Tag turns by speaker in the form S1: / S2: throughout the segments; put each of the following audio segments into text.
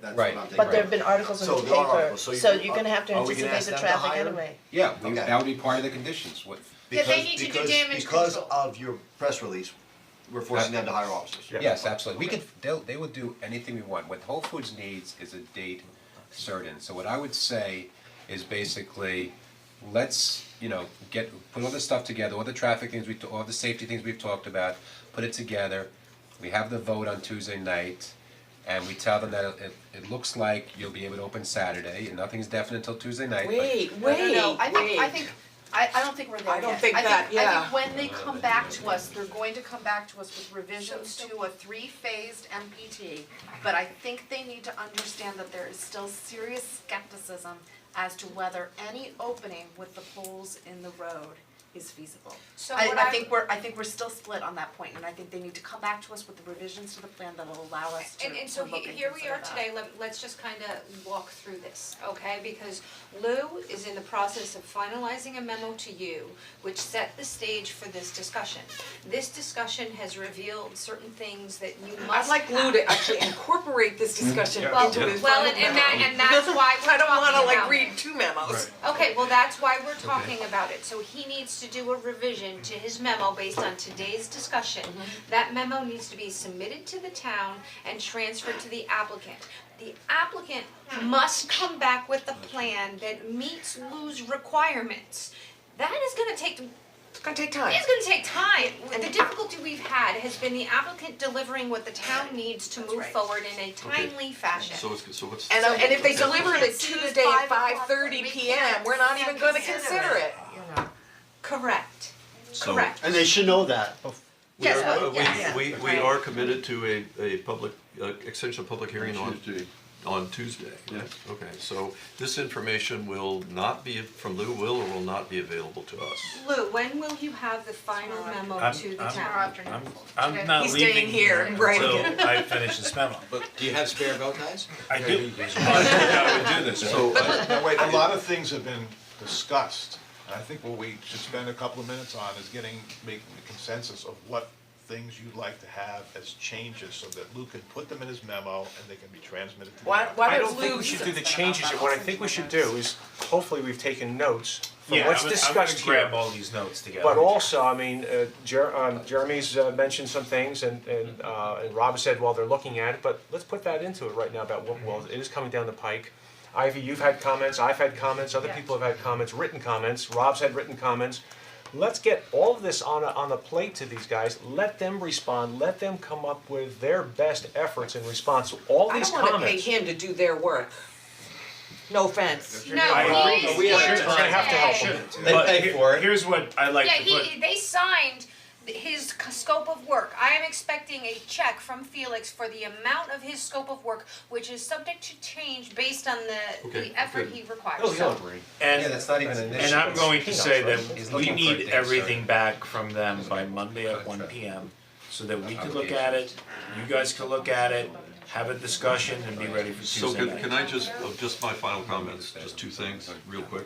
S1: that's what I'm
S2: Right.
S1: thinking.
S3: But there have been articles in the
S1: So there are
S3: paper,
S1: articles, so you
S3: so
S1: can-
S3: you're gonna have to
S1: are we gonna
S3: anticipate
S1: ask
S3: the
S1: them to
S3: traffic
S1: hire them?
S3: anyway.
S4: Yeah, we-
S1: Okay.
S4: that would be part of the conditions, what,
S5: Yeah, they
S1: Because-
S5: need to do
S1: because-
S5: damage
S1: Because
S5: control.
S1: of your press release, we're forcing them to hire officers.
S4: yes, absolutely, we could, they'll, they will do anything we want, what Whole Foods needs is a date certain, so what I would say is basically, let's, you know, get, put all this stuff together, all the traffic things we, all the safety things we've talked about, put it together, we have the vote on Tuesday night, and we tell them that it, it looks like you'll be able to open Saturday, and nothing's definite until Tuesday night, but-
S6: Wait, wait,
S5: No, no, no, I think, I
S6: wait.
S5: think, I, I don't think we're there
S6: I don't
S5: yet.
S6: think that,
S5: I
S6: yeah.
S5: think when they come back to us, they're going to come back to us with revisions to a three-phased MPT. But I think they need to understand that there is still serious skepticism as to whether any opening with the poles in the road is feasible.
S7: So
S5: I,
S7: what
S5: I
S7: I-
S5: think we're, I think we're still split on that point, and I think they need to come back to us with the revisions to the plan that will allow us to, to
S7: And
S5: look
S7: and so
S5: and
S7: he- here we
S5: consider
S7: are
S5: that.
S7: today, let let's just kinda walk through this, okay? Because Lou is in the process of finalizing a memo to you, which set the stage for this discussion. This discussion has revealed certain things that you
S6: I'd
S7: must
S6: like Lou to actually incorporate this
S8: Mm-hmm.
S6: discussion into
S7: Well,
S6: his final memo.
S7: well, and and that and that's why we're
S6: I don't wanna
S7: talking
S6: like
S7: about it.
S6: read two memos.
S7: Okay, well, that's why we're talking about it, so he needs to do a revision to his memo based on today's discussion. That memo needs to be submitted to the town and transferred to the applicant. The applicant must come back with a plan that meets Lou's requirements. That is gonna take
S6: It's gonna take time.
S7: it's gonna take time, the difficulty we've had has been the applicant delivering what the town needs to move forward in a timely fashion.
S9: So it's, so what's,
S6: And uh, and if they deliver it at
S5: It's due
S6: Tuesday
S5: five
S6: at five
S5: o'clock,
S6: thirty
S5: we
S6: P M,
S5: can't-
S6: we're not
S5: can't
S6: even gonna
S5: consider
S6: consider it.
S7: Correct,
S9: so,
S7: correct.
S10: And they should know that. bef-
S9: we
S5: Yes,
S9: are,
S5: yes.
S9: we, we, we are committed to a, a public, uh, extension of public hearing on,
S1: Tuesday.
S9: on Tuesday. Okay, so this information will not be, from Lou, will or will not be available to us.
S7: Lou, when will you have the final memo to the town?
S5: afternoon.
S8: I'm, I'm not
S6: He's
S8: leaving
S6: staying here
S8: here
S6: and writing
S8: until I finish this memo.
S2: But do you have spare bow ties?
S8: I do, I would do this,
S9: So,
S1: uh,
S9: I-
S11: Now, wait, a lot of things have been discussed, and I think what we should spend a couple of minutes on is getting, making the consensus of what things you'd like to have as changes, so that Lou can put them in his memo and they can be transmitted to the.
S6: Why why
S8: I
S6: don't
S8: don't think
S6: Lou
S8: we
S6: use
S8: should
S6: it?
S8: do the changes, yet. what I think we should do is, hopefully, we've taken notes from
S11: Yeah,
S8: what's
S11: I'm gonna- I'm
S8: discussed
S11: gonna
S8: here.
S11: grab all these notes together.
S8: But also, I mean, uh, Jer- um, Jeremy's uh, mentioned some things, and and uh, and Rob said, well, they're looking at it, but let's put that into it right now about what, well, it is coming down the pike. Ivy, you've had comments, I've had comments, other people have had comments, written comments, Rob's had written comments. Let's get all of this on a, on a plate to these guys, let them respond, let them come up with their best efforts in response to all
S6: I
S8: these
S6: don't
S8: comments.
S6: wanna pay him to do their work. No offense.
S7: No,
S8: I-
S7: he's
S8: we
S7: here
S8: are gonna have to help
S7: today.
S8: them.
S2: They
S8: But
S2: pay
S8: here-
S2: for it.
S8: Here's what I like
S7: Yeah,
S8: to put.
S7: he, they signed his c- scope of work. I am expecting a check from Felix for the amount of his scope of work, which is subject to change based on the,
S9: Okay,
S7: the effort
S9: good.
S7: he requires.
S8: Oh, yeah. And
S2: Yeah, that's not even an
S8: And
S2: issue.
S8: I'm going to
S2: Peanuts,
S8: say
S2: right?
S8: that
S2: He's
S8: we
S2: looking for a
S8: need
S2: date
S8: everything
S2: certain.
S8: back from them by Monday at one P M. So that we can look at it, you guys can look at it, have a discussion and be ready for
S9: so
S8: Tuesday
S9: can,
S8: night.
S9: can I just, oh, just my final comments, just two things, real quick.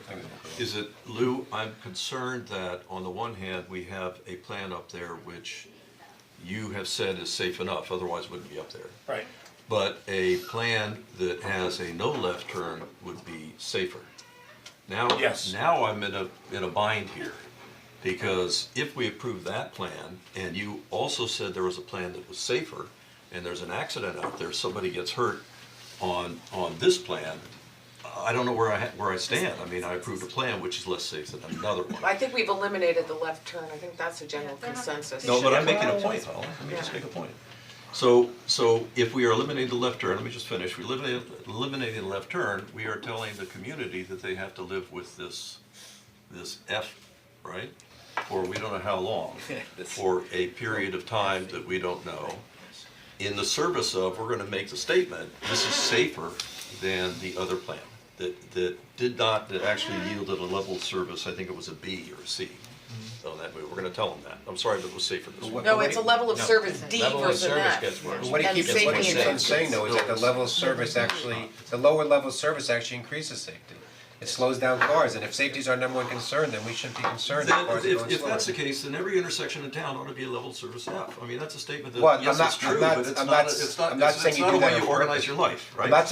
S9: Is that Lou, I'm concerned that on the one hand, we have a plan up there which you have said is safe enough, otherwise it wouldn't be up there.
S8: Right.
S9: But a plan that has a no left turn would be safer. Now,
S8: Yes.
S9: now I'm in a, in a bind here, because if we approve that plan, and you also said there was a plan that was safer, and there's an accident out there, somebody gets hurt on, on this plan, I don't know where I, ha- where I stand, I mean, I approved a plan which is less safe than another
S6: I
S9: one.
S6: think we've eliminated the left turn, I think that's a general consensus.
S9: No, but I'm making a point, Paul, let me just make a point. So, so if we are eliminating the left turn, let me just finish, we eliminate, eliminating the left turn, we are telling the community that they have to live with this, this F, right? For we don't know how long, for a period of time that we don't know. In the service of, we're gonna make the statement, this is safer than the other plan, that, that did not, that actually yielded a level of service, I think it was a B or a C. So that, way, we're gonna tell them that, I'm sorry, but it was safer this
S2: But
S9: way.
S2: what-
S6: No,
S2: but
S6: it's a
S2: what-
S6: level of
S2: no.
S6: service D
S9: Level of
S6: versus an
S9: service
S6: F.
S9: gets worse.
S2: But What he
S6: And
S2: keeps, what
S6: safety
S2: he keeps on
S6: intentions.
S2: saying though is that the level of service actually, the lower level of service actually increases safety. It slows down cars, and if safety is our number one concern, then we shouldn't be concerned that
S9: Then,
S2: cars are going
S9: if,
S2: slower.
S9: if that's the case, then every intersection in town ought to be a level service F. I mean, that's a statement
S2: Well,
S9: that,
S2: I'm
S9: yes,
S2: not-
S9: it's
S2: I'm
S9: true,
S2: not-
S9: but it's
S2: I'm
S9: not, a-
S2: not-
S9: it's not,
S2: I'm not
S9: it's
S2: saying
S9: it's
S2: you
S9: not a
S2: do that
S9: way you
S2: on purpose.
S9: organize your life, right?
S2: not